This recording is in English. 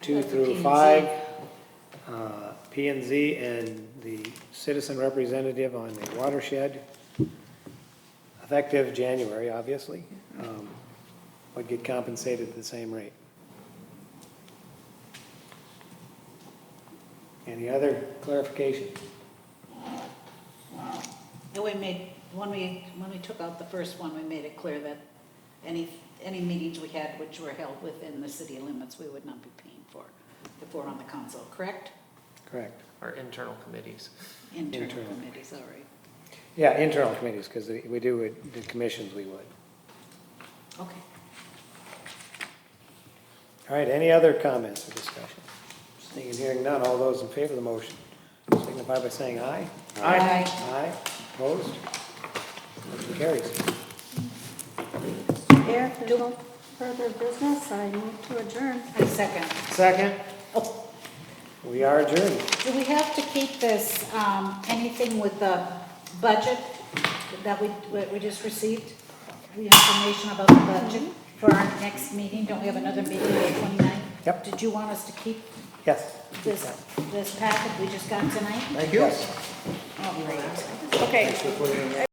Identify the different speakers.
Speaker 1: two
Speaker 2: Like the P
Speaker 1: through
Speaker 2: and
Speaker 1: five,
Speaker 2: Z.
Speaker 1: uh, P and Z, and the citizen representative on the watershed, effective January, obviously, um, would get compensated at the same rate. Any other clarification?
Speaker 2: And we made, when we, when we took out the first one, we made it clear that any, any meetings we had which were held within the city limits, we would not be paying for if we're on the council, correct?
Speaker 1: Correct.
Speaker 3: our internal committees.
Speaker 2: Internal
Speaker 1: Internal.
Speaker 2: committees, all right.
Speaker 1: Yeah, internal committees, because we do, it- the commissions we would.
Speaker 2: Okay.
Speaker 1: All right, any other comments or discussion? Seeing and hearing none, all those in favor of the motion signify by saying aye.
Speaker 2: Aye. Aye.
Speaker 1: Aye, opposed? Motion carries.
Speaker 4: Mayor, if there's no further business, I move to adjourn.
Speaker 2: I second.
Speaker 1: Second,
Speaker 2: Oh,
Speaker 1: we are adjourned.
Speaker 2: Do we have to keep this, um, anything with the budget that we, that we just received? The information about the budget for our next meeting? Don't we have another meeting on the 29th?
Speaker 1: Yep.
Speaker 2: Did you want us to keep
Speaker 1: Yes.
Speaker 2: this, this packet we just got tonight?
Speaker 1: Thank you.
Speaker 2: All right.
Speaker 5: Okay.